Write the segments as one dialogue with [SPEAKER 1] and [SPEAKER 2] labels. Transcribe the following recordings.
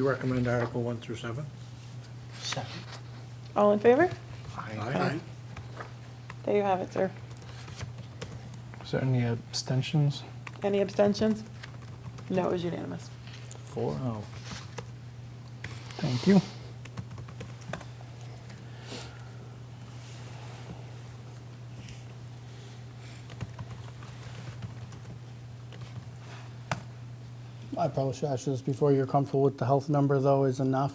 [SPEAKER 1] You recommend Article 1 through 7?
[SPEAKER 2] Second.
[SPEAKER 3] All in favor?
[SPEAKER 1] Aye.
[SPEAKER 3] There you have it, sir.
[SPEAKER 4] Is there any abstentions?
[SPEAKER 3] Any abstentions? No, it was unanimous.
[SPEAKER 4] Four oh. Thank you.
[SPEAKER 2] I probably should ask you this before you're comfortable with the health number, though, is enough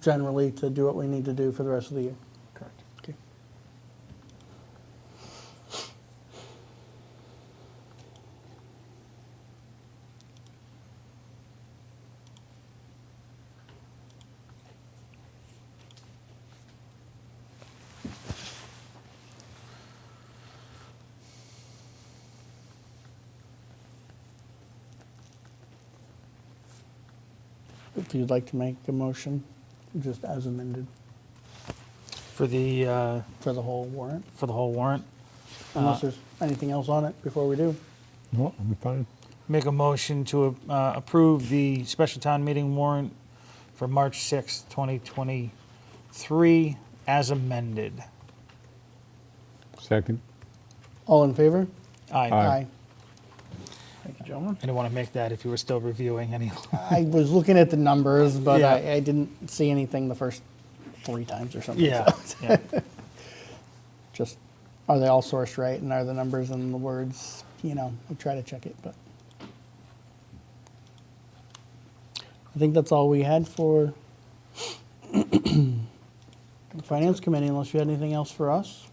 [SPEAKER 2] generally to do what we need to do for the rest of the year.
[SPEAKER 4] Correct.
[SPEAKER 2] Okay. If you'd like to make a motion, just as amended
[SPEAKER 4] For the, uh,
[SPEAKER 2] for the whole warrant,
[SPEAKER 4] for the whole warrant, Uh,
[SPEAKER 2] unless there's anything else on it before we do.
[SPEAKER 5] No, I'm fine.
[SPEAKER 4] make a motion to uh, approve the special town meeting warrant for March sixth, twenty 2023, as amended.
[SPEAKER 5] Second.
[SPEAKER 2] All in favor?
[SPEAKER 4] Aye.
[SPEAKER 2] Thank you, gentlemen.
[SPEAKER 4] I didn't want to make that if you were still reviewing any.
[SPEAKER 2] I was looking at the numbers, but
[SPEAKER 4] Yeah.
[SPEAKER 2] I, I didn't see anything the first three times or something.
[SPEAKER 4] Yeah,
[SPEAKER 2] so
[SPEAKER 4] yeah.
[SPEAKER 2] Just, are they all sourced right and are the numbers and the words, you know, I try to check it, but. I think that's all we had for the Finance Committee, unless you had anything else for us.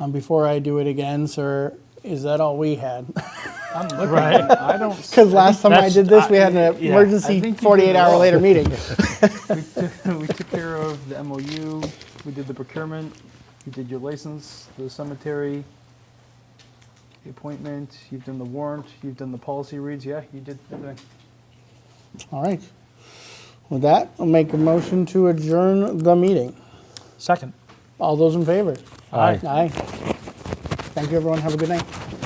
[SPEAKER 2] Um, before I do it again, sir, is that all we had?
[SPEAKER 6] I'm looking,
[SPEAKER 4] Right.
[SPEAKER 6] I don't,
[SPEAKER 2] Because last time I
[SPEAKER 4] That's-
[SPEAKER 2] did this, we had
[SPEAKER 4] I-
[SPEAKER 2] an
[SPEAKER 4] yeah.
[SPEAKER 6] I
[SPEAKER 2] emergency
[SPEAKER 6] think you did
[SPEAKER 2] 48 hour
[SPEAKER 6] well.
[SPEAKER 2] later meeting.
[SPEAKER 6] we took, we took care of the MOU, we did the procurement, you did your license, the cemetery, the appointment, you've done the warrant, you've done the policy reads, yeah, you did everything.
[SPEAKER 2] All right. With that, I'll make a motion to adjourn the meeting.
[SPEAKER 4] Second.
[SPEAKER 2] All those in favor?
[SPEAKER 5] Aye.
[SPEAKER 2] Aye. Thank you, everyone. Have a good night.